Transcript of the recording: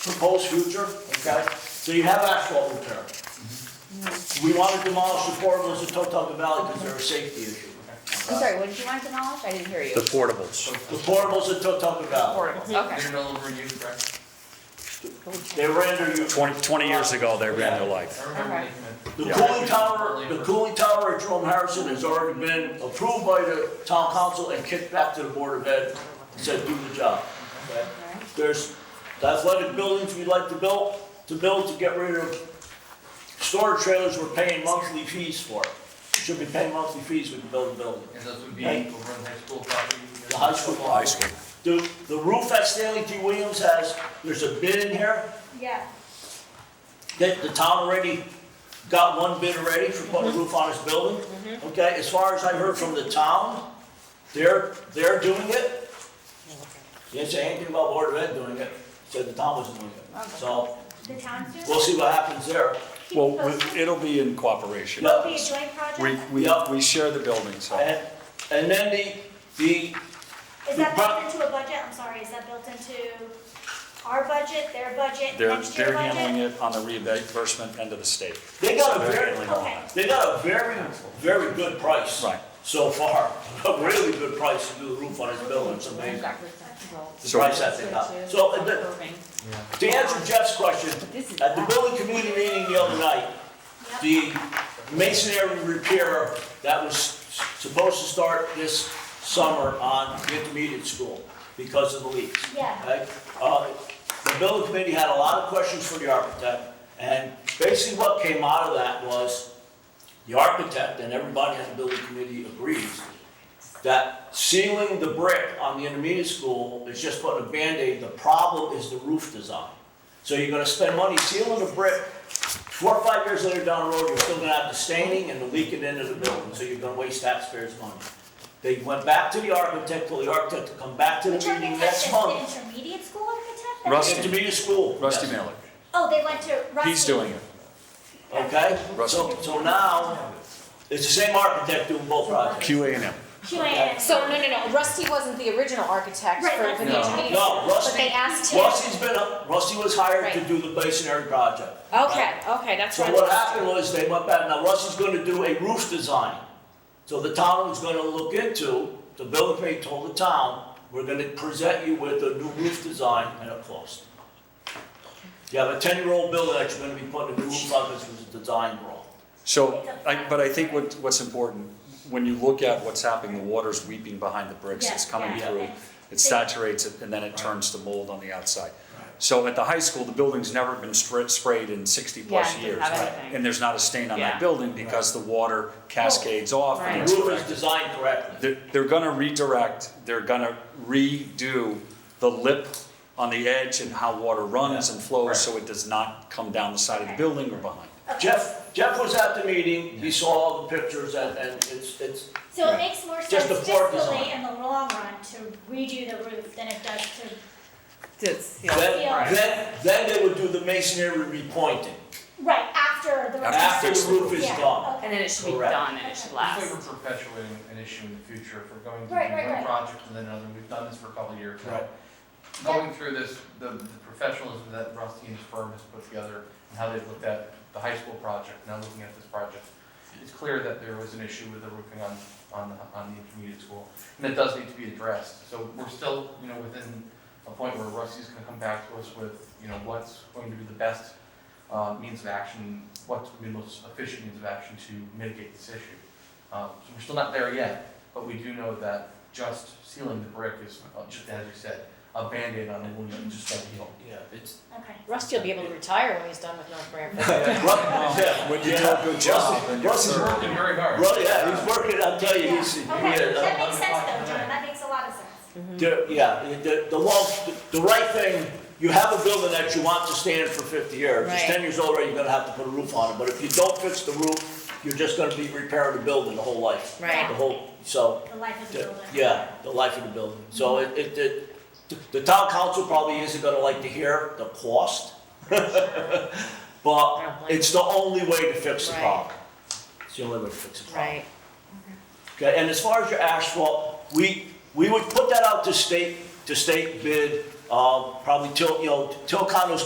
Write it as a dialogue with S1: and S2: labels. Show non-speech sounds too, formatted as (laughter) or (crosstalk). S1: proposed future, okay? So you have asphalt repair. We want to demolish the portables at Totucket Valley because they're a safety issue.
S2: I'm sorry, what did you want to demolish? I didn't hear you.
S3: The portables.
S1: The portables at Totucket Valley,
S2: Portables, okay.
S4: They're no longer used, correct?
S1: they were under your.
S3: 20, 20 years ago, they ran their life.
S4: I remember when
S2: Okay.
S4: they came in.
S1: The
S3: Yeah.
S1: cooling tower, the cooling tower at Jerome Harrison has already been approved by the town council and kicked back to the board of ed, and said, do the job. Okay? There's the athletic buildings we'd like to build, to build to get rid of storage trailers we're paying monthly fees for. Should be paying monthly fees when you build a building.
S4: And those would be
S1: Hey.
S4: over on high school property.
S1: The high school.
S3: High school.
S1: The, the roof at Stanley T. Williams has, there's a bid in here,
S2: Yeah.
S1: that the town already got one bid already for putting a roof on his building. Okay, as far as I heard from the town, they're, they're doing it. They Didn't say anything about Board of Ed doing it, said the town was doing it. So,
S5: The town's doing?
S1: we'll see what happens there.
S5: Keep
S3: Well,
S5: posted.
S3: we- it'll be in cooperation.
S5: It'll be a joint
S3: We,
S5: project?
S3: we, we share the building, so.
S1: And, and then the, the,
S5: Is
S1: we
S5: that
S1: brought-
S5: built into a budget? I'm sorry, is that built into our budget, their budget,
S3: They're,
S5: next year
S3: they're handling
S5: budget?
S3: it on the reimbursement end of the state.
S1: they got
S3: So
S1: a
S3: they're
S1: very,
S3: handling all that.
S1: they got a very, very good price.
S3: Right.
S1: So far, (laughs) a really good price to do the roof on his building, it's amazing. The
S3: So-
S1: price that they got. So, and the- To answer Jeff's question, at the building committee meeting the other night, the masonry repair that was supposed to start this summer on the intermediate school because of the leaks.
S5: Yeah.
S1: okay? Uh, The building committee had a lot of questions for the architect, and basically what came out of that was the architect and everybody at the building committee agrees that sealing the brick on the intermediate school is just putting a Band-Aid. The problem is the roof design. So you're gonna spend money sealing the brick. Four or five years later down the road, you're still gonna have the staining and the leaking into the building, so you're gonna waste taxpayers' money. They went back to the architect, told the architect to come back to the
S5: Which
S1: meeting
S5: architect is
S1: next
S5: the
S1: month.
S5: intermediate school architect?
S3: Rusty.
S1: Intermediate school.
S3: Rusty
S1: yes.
S3: Malik,
S5: Oh, they went to Rusty.
S3: he's doing it.
S1: Okay?
S3: Rusty.
S1: So, so now, it's the same architect doing both projects.
S3: QA and M.
S5: QAM.
S2: So, no, no, no, Rusty wasn't the original architect
S5: Right,
S2: for, for the
S5: no.
S2: engineer.
S1: No,
S2: But they
S1: Rusty,
S2: asked him,
S1: Rusty's been, Rusty was hired to
S2: Right.
S1: do the masonry project.
S2: okay, okay, that's
S1: So
S2: right.
S1: what happened was they went back, now Rusty's gonna do a roof design. So the town was gonna look into, the building committee told the town, we're gonna present you with a new roof design and a cost. You have a ten-year-old building that you're gonna be putting a new roof on, this was a design wrong.
S3: So, I, but I think what, what's important, when you look at what's happening, the water's weeping behind the bricks, it's
S5: Yeah,
S3: coming
S5: yeah.
S3: through, it saturates it, and then it turns to mold on the outside. So at the high school, the building's never been spr- sprayed in
S2: Yeah,
S3: sixty-plus
S2: it
S3: years.
S2: didn't have anything.
S3: And there's not a stain on
S2: Yeah.
S3: that building because the water cascades off
S2: Right.
S3: and
S1: The
S3: it's
S1: roof is
S3: corrected.
S1: designed correctly.
S3: They're, they're gonna redirect, they're gonna redo the lip on the edge and how water runs and flows, so it does not come down the side of the building or behind.
S1: Jeff, Jeff was at the meeting, he saw all the pictures and, and it's, it's,
S5: So it makes more sense
S1: Just the floor design.
S5: fiscally in the long run to redo the roof than it does to,
S2: It's- yeah.
S5: Yeah.
S1: then, then, then they would do the masonry repointing,
S5: right, after the.
S1: after
S3: fix
S1: the
S3: the
S1: roof
S3: roof.
S1: is
S5: Yeah,
S1: gone.
S5: okay.
S2: And then it should be
S1: Correct.
S2: done and it should
S4: It's
S2: last.
S4: like we're perpetuating an issue in the future, if we're going to do
S5: Right, right,
S4: one
S5: right.
S4: project and then another, we've done this for a couple of years now.
S1: Right.
S4: Going through this, the the professionalism that Rusty and his firm has put together, and how they've looked at the high school project, now looking at this project, it's clear that there was an issue with the roofing on, on, the- on the intermediate school, and that does need to be addressed. So we're still, you know, within a point where Rusty's gonna come back to us with, you know, what's going to be the best uh, means of action, what's going to be the most efficient means of action to mitigate this issue. Um, So we're still not there yet, but we do know that just sealing the brick is, uh, just as you said, a Band-Aid on a wound that just doesn't heal.
S1: Yeah, it's.
S5: Okay.
S2: Rusty will be able to retire when he's done with North Branford.
S1: (laughs) Yeah.
S3: When you do a good job and you're
S1: Russ is
S3: thorough.
S1: working.
S4: Working very hard.
S1: Well, yeah, he's working, I'll tell you,
S5: Yeah,
S1: he's, he
S5: okay, Mm-hmm.
S1: had
S5: that
S1: a-
S5: makes sense though, John, that makes a lot of sense.
S1: the- yeah, the, the long, the right thing, you have a building that you want to stand for fifty years. If It's
S2: Right.
S1: ten years old, already, you're gonna have to put a roof on it, but if you don't fix the roof, you're just gonna be repairing the building the whole life.
S2: Right.
S1: The whole, so,
S5: The life of the
S1: the-
S5: building.
S1: yeah, the life of the building. So
S2: Mm-hmm.
S1: it, it, it- the, the town council probably isn't gonna like to hear the cost, (laughs)
S2: don't
S1: but
S2: blame
S1: it's the only way to fix the
S2: Right.
S1: problem. It's the only way to fix the problem.
S2: Right,
S1: Okay, and as far as your asphalt, we, we would put that out to state, to state bid, uh, probably till, um, you know, till condos